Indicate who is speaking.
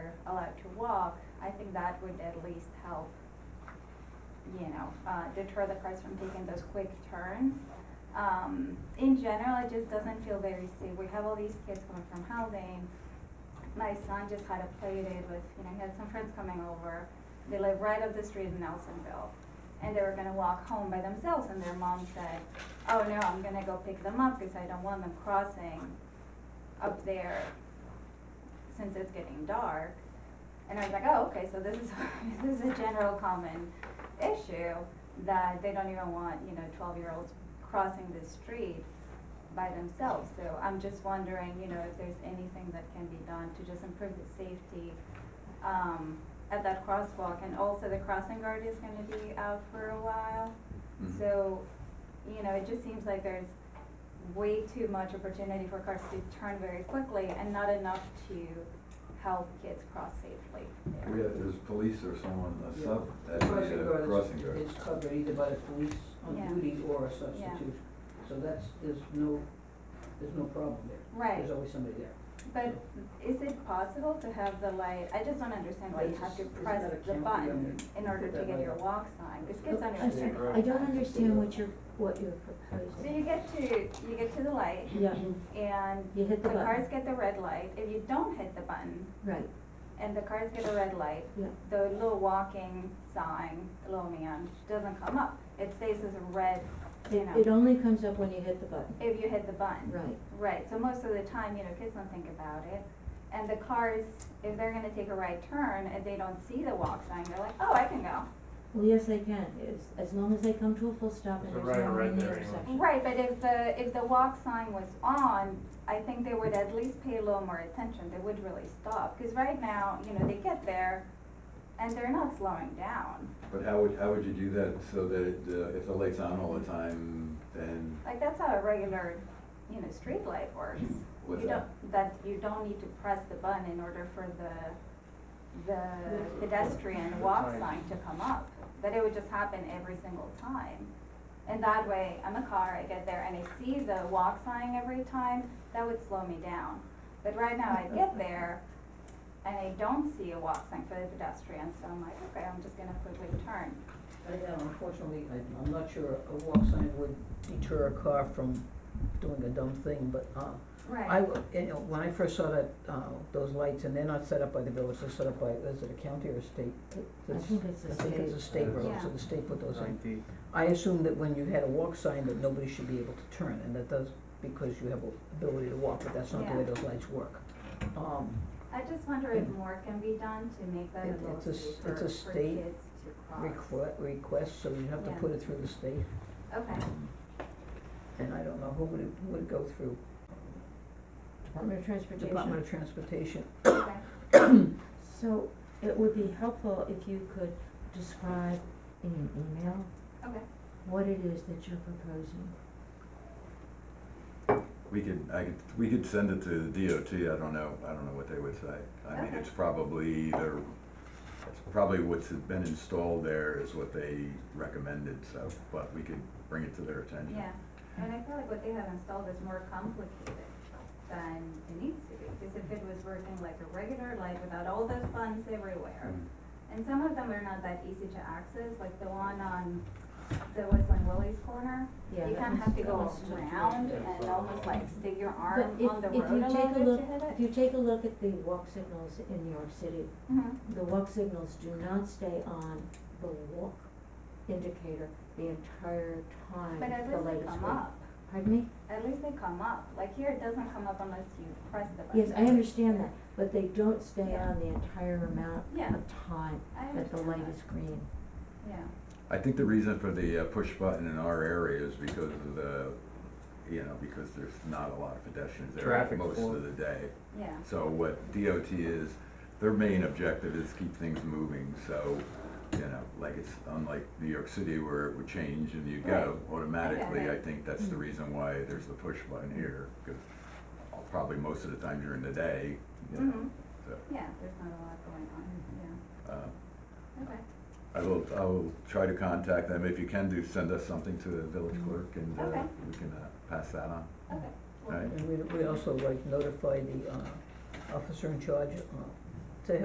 Speaker 1: allowed uh, to walk, I think that would at least help, you know, uh, deter the cars from taking those quick turns. Um, in general, it just doesn't feel very safe. We have all these kids coming from housing. My son just had a play date with, you know, he had some friends coming over. They live right up the street in Nelsonville. And they were gonna walk home by themselves and their mom said, oh no, I'm gonna go pick them up because I don't want them crossing up there since it's getting dark. And I was like, oh, okay, so this is, this is a general common issue that they don't even want, you know, twelve-year-olds crossing the street by themselves. So I'm just wondering, you know, if there's anything that can be done to just improve the safety, um, at that crosswalk. And also the crossing guard is gonna be out for a while.
Speaker 2: Mhm.
Speaker 1: So, you know, it just seems like there's way too much opportunity for cars to turn very quickly and not enough to help kids cross safely there.
Speaker 2: We have, there's police or someone, a
Speaker 3: Yeah.
Speaker 2: sub,
Speaker 3: The
Speaker 2: that's
Speaker 3: crossing
Speaker 2: a
Speaker 3: guard
Speaker 2: crossing
Speaker 3: is-
Speaker 2: guard.
Speaker 3: It's covered either by the police
Speaker 1: Yeah.
Speaker 3: on duty or a substitute, so that's, there's no, there's no problem there.
Speaker 1: Right,
Speaker 3: There's always somebody there.
Speaker 1: but is it possible to have the light, I just don't understand why you have to
Speaker 3: Isn't that
Speaker 1: press
Speaker 3: a
Speaker 1: the
Speaker 3: canopy
Speaker 1: button
Speaker 3: under-
Speaker 1: in order to
Speaker 3: that
Speaker 1: get
Speaker 3: light?
Speaker 1: your walk sign, because kids
Speaker 4: I'm sorry,
Speaker 1: understand.
Speaker 4: I don't understand what you're, what you're
Speaker 1: So
Speaker 4: proposing.
Speaker 1: you get to, you get to the light
Speaker 4: Yeah,
Speaker 1: and
Speaker 4: you
Speaker 1: the
Speaker 4: hit the button,
Speaker 1: cars get the red light, if you don't hit the button
Speaker 4: right,
Speaker 1: and the cars get the red light,
Speaker 4: yeah,
Speaker 1: the little walking sign, the little man, doesn't come up. It stays as a red, you
Speaker 4: it,
Speaker 1: know,
Speaker 4: it only comes up when you hit the button,
Speaker 1: if you hit the button.
Speaker 4: right,
Speaker 1: Right, so most of the time, you know, kids don't think about it. And the cars, if they're gonna take a right turn and they don't see the walk sign, they're like, oh, I can go.
Speaker 4: well, yes, they can, as, as long as they come to a full stop and
Speaker 5: There's a
Speaker 4: there's
Speaker 5: right
Speaker 4: no one
Speaker 5: or
Speaker 4: in
Speaker 5: right
Speaker 4: the
Speaker 5: there anyway.
Speaker 4: intersection.
Speaker 1: Right, but if the, if the walk sign was on, I think they would at least pay a little more attention, they would really stop. Cause right now, you know, they get there and they're not slowing down.
Speaker 2: But how would, how would you do that so that it, uh, if the light's on all the time, then
Speaker 1: Like that's how a regular, you know, street light works.
Speaker 2: what's
Speaker 1: You
Speaker 2: that?
Speaker 1: don't, that you don't need to press the button in order for the, the pedestrian walk
Speaker 5: Right.
Speaker 1: sign to come up. That it would just happen every single time. And that way, I'm a car, I get there and I see the walk sign every time, that would slow me down. But right now, I get there and I don't see a walk sign for the pedestrian, so I'm like, okay, I'm just gonna quickly turn.
Speaker 3: I, uh, unfortunately, I, I'm not sure a walk sign would deter a car from doing a dumb thing, but, um, I,
Speaker 1: Right,
Speaker 3: w- you know, when I first saw that, uh, those lights, and they're not set up by the village, they're set up by, is it a county or a state?
Speaker 4: I
Speaker 3: It's-
Speaker 4: think it's
Speaker 3: I
Speaker 4: a
Speaker 3: think it's a
Speaker 4: state,
Speaker 3: state road, so
Speaker 1: Yeah.
Speaker 3: the state put those in.
Speaker 5: Ninety.
Speaker 3: I assume that when you had a walk sign that nobody should be able to turn, and that does, because you have a ability to walk, but that's not the way
Speaker 1: Yeah.
Speaker 3: those lights work. Um,
Speaker 1: I just wonder if more can be done to make that a
Speaker 3: It-
Speaker 1: little
Speaker 3: it's a s-
Speaker 1: safer
Speaker 3: it's
Speaker 1: for
Speaker 3: a
Speaker 1: kids to cross.
Speaker 3: state requ- request, so you have to
Speaker 1: Yeah.
Speaker 3: put it through the state,
Speaker 1: Okay.
Speaker 3: and I don't know, who would it, who would it go through?
Speaker 4: Department of Transportation.
Speaker 3: Department of Transportation,
Speaker 1: Okay,
Speaker 4: So it would be helpful if you could describe in an email
Speaker 1: okay.
Speaker 4: what it is that you're proposing.
Speaker 2: We could, I could, we could send it to the DOT, I don't know, I don't know what they would say. I mean,
Speaker 1: Okay.
Speaker 2: it's probably either, it's probably what's been installed there is what they recommended, so, but we could bring it to their attention.
Speaker 1: Yeah, and I feel like what they have installed is more complicated than it needs to be, because if it was working like a regular light without all those buttons everywhere,
Speaker 2: Mm.
Speaker 1: and some of them are not that easy to access, like the one on the Whistling Willie's corner,
Speaker 4: Yeah,
Speaker 1: you
Speaker 4: that
Speaker 1: kind of
Speaker 4: one's-
Speaker 1: have to
Speaker 4: that
Speaker 1: go
Speaker 4: one's tough.
Speaker 1: around and almost like stick your arm
Speaker 4: But if-
Speaker 1: on the
Speaker 4: if you
Speaker 1: road a little
Speaker 4: take a
Speaker 1: bit to hit it.
Speaker 4: look- If you take a look at the walk signals in New York City,
Speaker 1: Mhm.
Speaker 4: the walk signals do not stay on the walk indicator the entire time
Speaker 1: But at
Speaker 4: the
Speaker 1: least
Speaker 4: light
Speaker 1: they
Speaker 4: is
Speaker 1: come
Speaker 4: green.
Speaker 1: up,
Speaker 4: Pardon me?
Speaker 1: at least they come up, like here it doesn't come up unless you press the button.
Speaker 4: Yes, I understand that, but they don't stay
Speaker 1: Yeah.
Speaker 4: on the entire amount
Speaker 1: Yeah.
Speaker 4: of time
Speaker 1: I
Speaker 4: that the
Speaker 1: understand
Speaker 4: light
Speaker 1: that.
Speaker 4: is green.
Speaker 1: Yeah.
Speaker 2: I think the reason for the uh, push button in our area is because of the, you know, because there's not a lot of pedestrians there
Speaker 5: Traffic
Speaker 2: most
Speaker 5: flow.
Speaker 2: of the day.
Speaker 1: Yeah,
Speaker 2: So what DOT is, their main objective is keep things moving, so, you know, like it's unlike New York City where it would change and you go automatically. I
Speaker 1: right.
Speaker 2: think that's
Speaker 5: Mm.
Speaker 2: the reason why there's the push button here, because probably most of the time during the day, you know,
Speaker 1: mhm,
Speaker 2: so,
Speaker 1: yeah, there's not a lot going on, yeah,
Speaker 5: Mm-hmm.
Speaker 2: uh,
Speaker 1: okay.
Speaker 2: I will, I will try to contact them. If you can do, send us something to the village clerk and uh,
Speaker 1: Okay.
Speaker 2: we can uh, pass that on.
Speaker 1: Okay.
Speaker 2: All right.
Speaker 3: and we, we also like notify the, uh, officer in charge, uh,